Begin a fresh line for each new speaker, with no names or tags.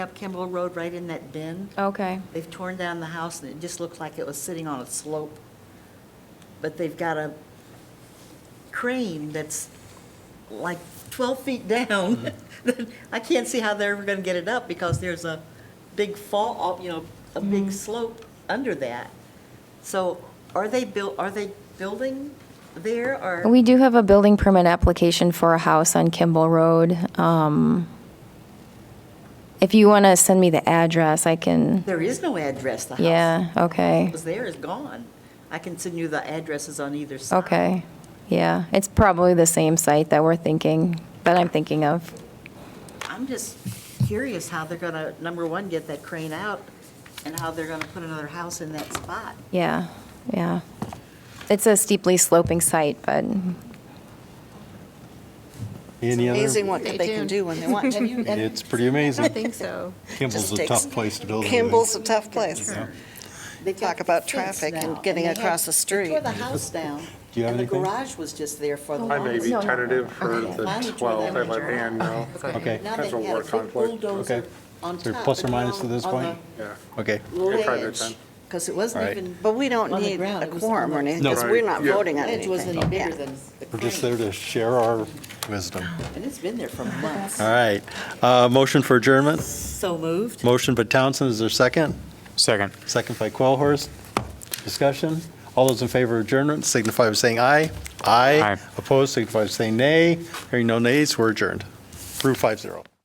Up Kimball Road, right in that bend.
Okay,
They've torn down the house, and it just looked like it was sitting on a slope. But they've got a crane that's like 12 feet down. I can't see how they're ever going to get it up, because there's a big fall, uh, you know, a big slope under that. So are they buil, are they building there, or?
we do have a building permit application for a house on Kimball Road. Um, If you want to send me the address, I can,
There is no address, the house.
yeah,
What
okay,
was there is gone. I can send you the addresses on either side.
okay, yeah. It's probably the same site that we're thinking, that I'm thinking of.
I'm just curious how they're going to, number one, get that crane out, and how they're going to put another house in that spot.
Yeah, yeah. It's a steeply sloping site, but
Any
Amazing
other?
what they can do when they want to.
It's pretty amazing.
think so.
Kimball's
Just
a
takes-
tough place to build a building.
Kimball's a tough place.
Yeah.
They
Talk about traffic and getting across the street.
They tore the house down, Oh,
Do you have
and the
anything?
garage was just there for the
I may be
longest.
tentative for
Okay.
the
Finally tore
12th, I
that
let
one
Ann know.
Okay.
Now they've
That's a
got
war
a big
conflict.
bulldozer
Okay.
on
Is there
top,
plus or
but
minus
down
to this
on
point?
Yeah.
Okay.
the
Yeah, try that
ledge,
time.
because it
All
wasn't
right.
even,
But we don't
On the
need
ground,
a
it was
quorum or
on the-
anything,
No.
because we're not
Right, yeah.
voting on
ledge
anything.
wasn't any bigger
Yeah.
than the
We're just
crane.
there to share our wisdom.
And it's been there for months.
All right. Uh, Motion for adjournment.
So moved.
Motion by Townsend. Is there a second?
Second.
Second by Quellhorst. Discussion. All those in favor of adjournment signify by saying aye. Aye.
Aye.
Opposed signify by saying nay. Hearing no nays, we're adjourned. Through 5-0.